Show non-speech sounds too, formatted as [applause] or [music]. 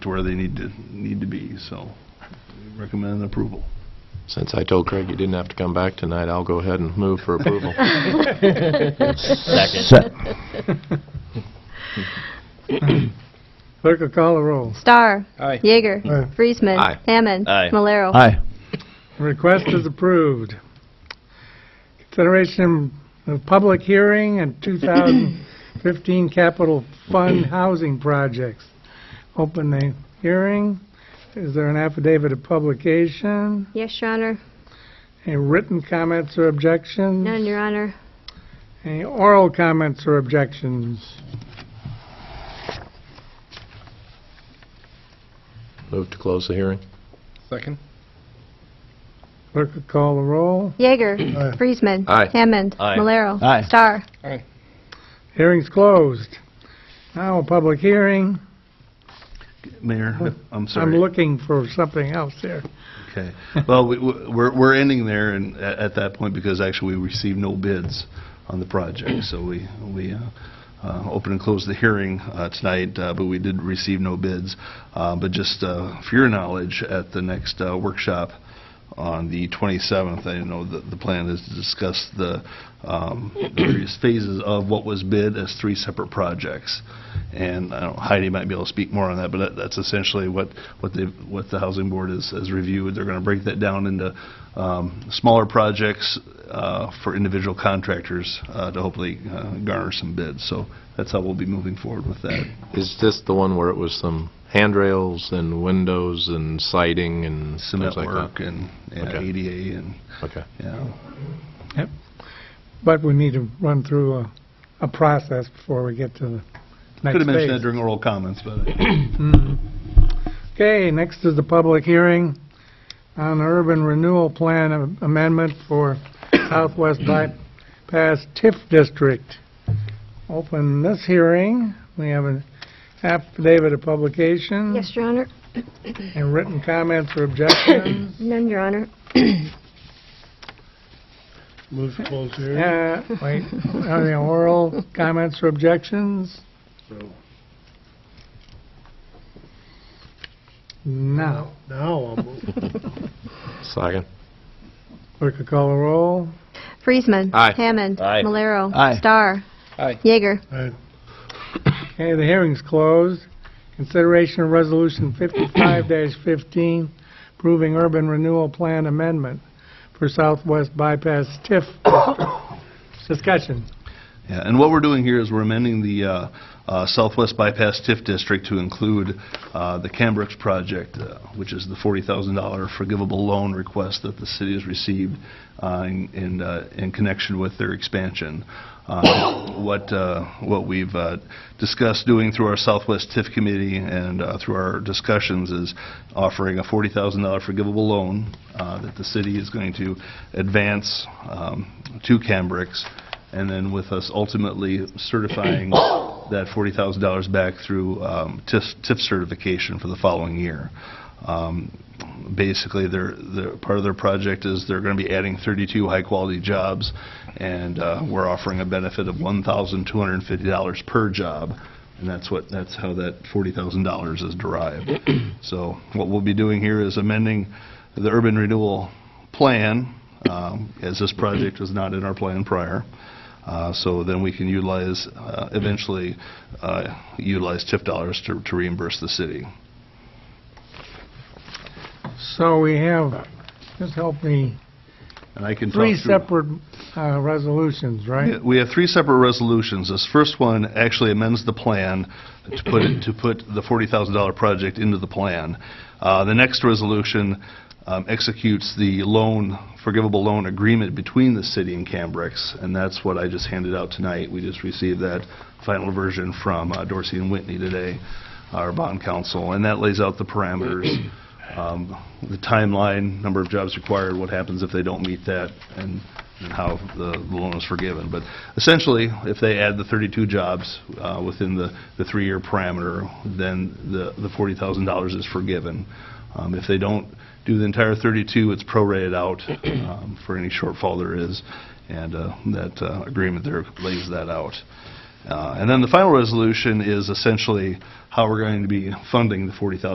to where they need to, need to be, so we recommend approval. Since I told Craig you didn't have to come back tonight, I'll go ahead and move for approval. Clerk will call the roll. Star. Aye. Yeager. Aye. Friesman. Aye. Hammond. Aye. Malero. Aye. Request is approved. Consideration of public hearing and 2015 capital fund housing projects. Open the hearing. Is there an affidavit of publication? Yes, Your Honor. Any written comments or objections? None, Your Honor. Any oral comments or objections? Move to close the hearing. Second? Clerk will call the roll. Yeager. Friesman. Aye. Hammond. Aye. Malero. Aye. Star. Hearing's closed. Now, a public hearing. Mayor, I'm sorry. I'm looking for something else here. Okay. Well, we- we're, we're ending there and a- at that point because actually we received no bids on the project. So we, we uh, uh, open and close the hearing uh, tonight, uh, but we did receive no bids. Uh, But just uh, for your knowledge, at the next uh, workshop on the 27th, I know that the plan is to discuss the um, various phases of what was bid as three separate projects. And I don't- Heidi might be able to speak more on that, but that- that's essentially what, what the, what the housing board has, has reviewed. They're going to break that down into um, smaller projects uh, for individual contractors uh, to hopefully uh, garner some bids. So that's how we'll be moving forward with that. Is this the one where it was some handrails and windows and siding and Cement things like that? work and yeah, Okay. ADA and, Okay. yeah. But we need to run through a, a process before we get to the next phase. Could have mentioned that during oral comments, but I Mhm. Okay, next is the public hearing on the urban renewal plan am- amendment for [coughs] Southwest Bypass TIF District. Open this hearing. We have an affidavit of publication. Yes, Your Honor. And written comments or objections. None, Your Honor. Move to close hearing. Uh, wait, are there oral comments or objections? No. Now I'll move. Second. Clerk will call the roll. Friesman. Aye. Hammond. Aye. Malero. Aye. Star. Aye. Yeager. Okay, the hearing's closed. Consideration of Resolution 55-15, approving urban renewal plan amendment for Southwest Bypass TIF. Discussion. Yeah, and what we're doing here is we're amending the uh, uh, Southwest Bypass TIF District to include uh, the Cambrooks project, uh, which is the $40,000 forgivable loan request that the city has received uh, in- in uh, in connection with their expansion. Uh, What uh, what we've uh, discussed doing through our Southwest TIF Committee and uh, through our discussions is offering a $40,000 forgivable loan uh, that the city is going to advance um, to Cambrooks and then with us ultimately certifying that $40,000 back through um, TIF TIF certification for the following year. Um, Basically, their, their, part of their project is they're going to be adding 32 high-quality jobs, and uh, we're offering a benefit of $1,250 per job, and that's what, that's how that $40,000 is derived. So what we'll be doing here is amending the urban renewal plan, um, as this project was not in our plan prior. Uh, So then we can utilize, uh, eventually uh, utilize TIF dollars to to reimburse the city. So we have, just help me, And I can talk three through- separate uh, resolutions, Yeah, right? We have three separate resolutions. This first one actually amends the plan to put, it- to put the $40,000 project into the plan. Uh, The next resolution um, executes the loan, forgivable loan agreement between the city and Cambrex, and that's what I just handed out tonight. We just received that final version from uh, Dorsey and Whitney today, our bond counsel, and that lays out the parameters, um, the timeline, number of jobs required, what happens if they don't meet that, and and how the the loan is forgiven. But essentially, if they add the 32 jobs uh, within the the three-year parameter, then the the $40,000 is forgiven. Um, If they don't do the entire 32, it's prorated out um, for any shortfall there is, and uh, that uh, agreement there lays that out. Uh, And then the final resolution is essentially how we're going to be funding the 40,000.